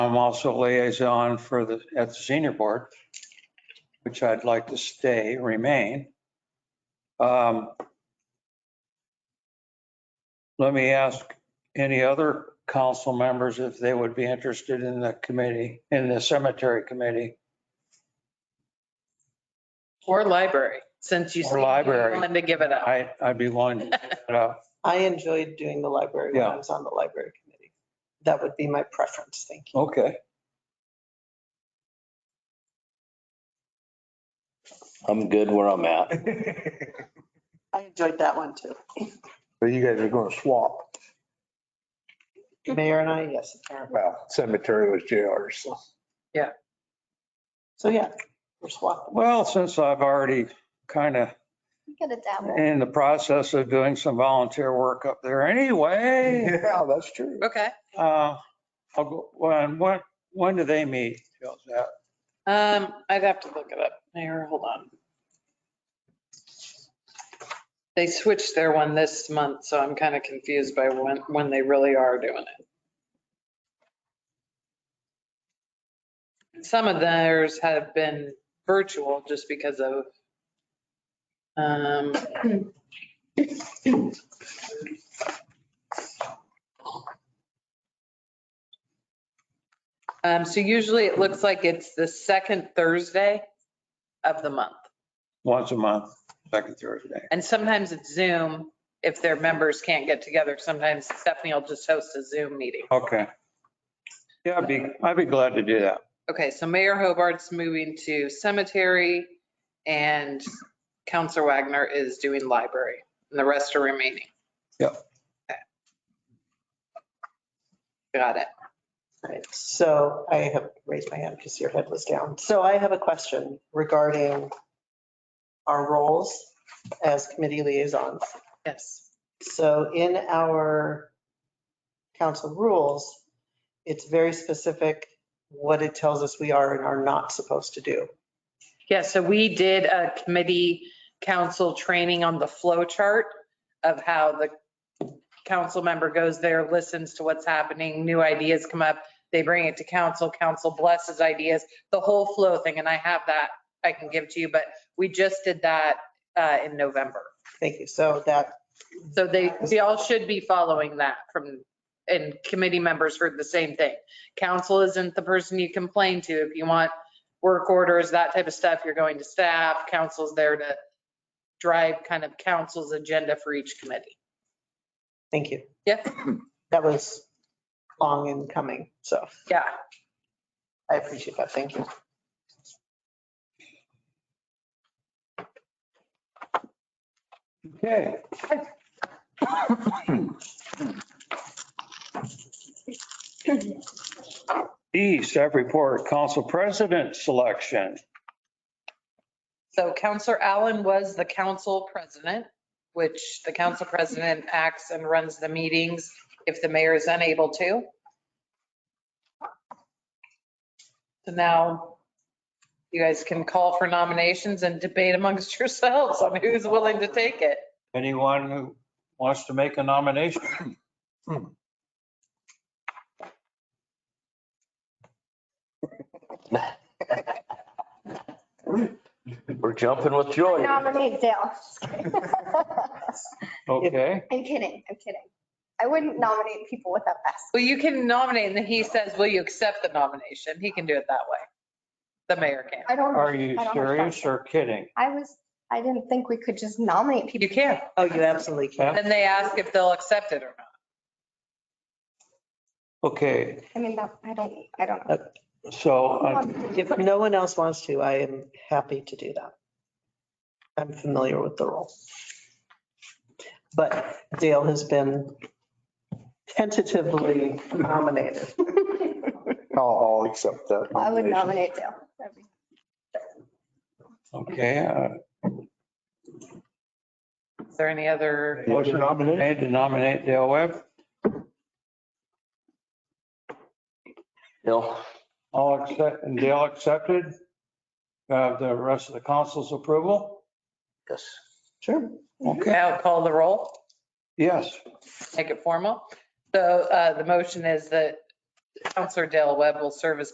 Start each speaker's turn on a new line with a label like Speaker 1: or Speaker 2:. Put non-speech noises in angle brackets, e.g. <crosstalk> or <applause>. Speaker 1: I'm also liaison for the, at the senior board, which I'd like to stay, remain. Um, Let me ask any other council members if they would be interested in the committee, in the cemetery committee.
Speaker 2: Or library, since you.
Speaker 1: Or
Speaker 2: said you
Speaker 1: library.
Speaker 2: Wanted to give it up.
Speaker 1: I, I'd be willing to give it up.
Speaker 3: I enjoyed doing the library when
Speaker 1: Yeah.
Speaker 3: I was on the library committee. That would be my preference, thank you.
Speaker 1: Okay.
Speaker 4: I'm good where I'm
Speaker 5: <laughs>
Speaker 4: at.
Speaker 3: I enjoyed that one too.
Speaker 5: So you guys are gonna swap.
Speaker 3: Mayor and I, yes, apparently.
Speaker 5: Well, cemetery was JR's, so.
Speaker 3: So yeah, we're swapping.
Speaker 1: Well, since I've already kind of
Speaker 6: We could dabble.
Speaker 1: in the process of doing some volunteer work up there anyway,
Speaker 5: Yeah, that's true.
Speaker 2: Okay.
Speaker 1: uh, I'll go, when, when, when do they meet? How's that?
Speaker 2: Um, I'd have to look it up. Mayor, hold on. They switched their one this month, so I'm kind of confused by when, when they really are doing it. Some of theirs have been virtual just because of, um, um, so usually it looks like it's the second Thursday of the month.
Speaker 1: Once a month, second Thursday.
Speaker 2: And sometimes it's Zoom. If their members can't get together, sometimes Stephanie will just host a Zoom meeting.
Speaker 1: Okay. Yeah, I'd be, I'd be glad to do that.
Speaker 2: Okay, so Mayor Hobart's moving to cemetery and Counselor Wagner is doing library and the rest are remaining.
Speaker 1: Yep.
Speaker 2: Okay. Got it.
Speaker 3: Right, so I have raised my hand because your head was down. So I have a question regarding our roles as committee liaisons.
Speaker 2: Yes.
Speaker 3: So in our council rules, it's very specific what it tells us we are and are not supposed to do.
Speaker 2: Yeah, so we did a committee council training on the flow chart of how the council member goes there, listens to what's happening, new ideas come up, they bring it to council, council blesses ideas, the whole flow thing, and I have that I can give to you, but we just did that uh, in November.
Speaker 3: Thank you. So that,
Speaker 2: So they, we all should be following that from, and committee members heard the same thing. Council isn't the person you complain to. If you want work orders, that type of stuff, you're going to staff. Council's there to drive kind of council's agenda for each committee.
Speaker 3: thank you.
Speaker 2: Yeah.
Speaker 3: <clears throat> That was long in coming, so
Speaker 2: Yeah.
Speaker 3: I appreciate that. Thank you.
Speaker 1: Okay. E, staff report, council president selection.
Speaker 2: So Counselor Allen was the council president, which the council president acts and runs the meetings if the mayor is unable to. So now you guys can call for nominations and debate amongst <laughs> yourselves on who's willing to take it.
Speaker 1: Anyone who wants to make a nomination?
Speaker 4: We're jumping with
Speaker 1: Oh,
Speaker 4: joy.
Speaker 6: Nominate Dale. <laughs>
Speaker 1: Okay,
Speaker 6: I'm kidding, I'm kidding. I wouldn't nominate people without us.
Speaker 2: Well, you can nominate and then he says, will you accept the nomination? He can do it that way. The mayor can.
Speaker 6: I don't.
Speaker 1: are you
Speaker 6: I don't have
Speaker 1: serious
Speaker 6: time.
Speaker 1: or kidding?
Speaker 6: I was, I didn't think we could just nominate people.
Speaker 2: You can.
Speaker 3: Oh, you absolutely can.
Speaker 2: Then they ask if they'll accept it or not.
Speaker 1: Okay,
Speaker 6: I mean, that- I don't, I don't know.
Speaker 1: so uh,
Speaker 3: If no one else wants to, I am happy to do that. I'm familiar with the role. But Dale has been tentatively nominated.
Speaker 5: I'll, I'll accept that.
Speaker 6: I would
Speaker 5: nomination.
Speaker 6: nominate Dale. That'd be-
Speaker 1: Okay, uh,
Speaker 2: Is there any other?
Speaker 1: motion made to nominate Dale Webb.
Speaker 4: Bill,
Speaker 1: All accept, and Dale accepted. Have the rest of the council's approval?
Speaker 4: yes.
Speaker 3: Sure.
Speaker 1: Okay,
Speaker 2: Now call the roll,
Speaker 1: yes.
Speaker 2: make it formal. So uh, the motion is that Counselor Dale Webb will serve as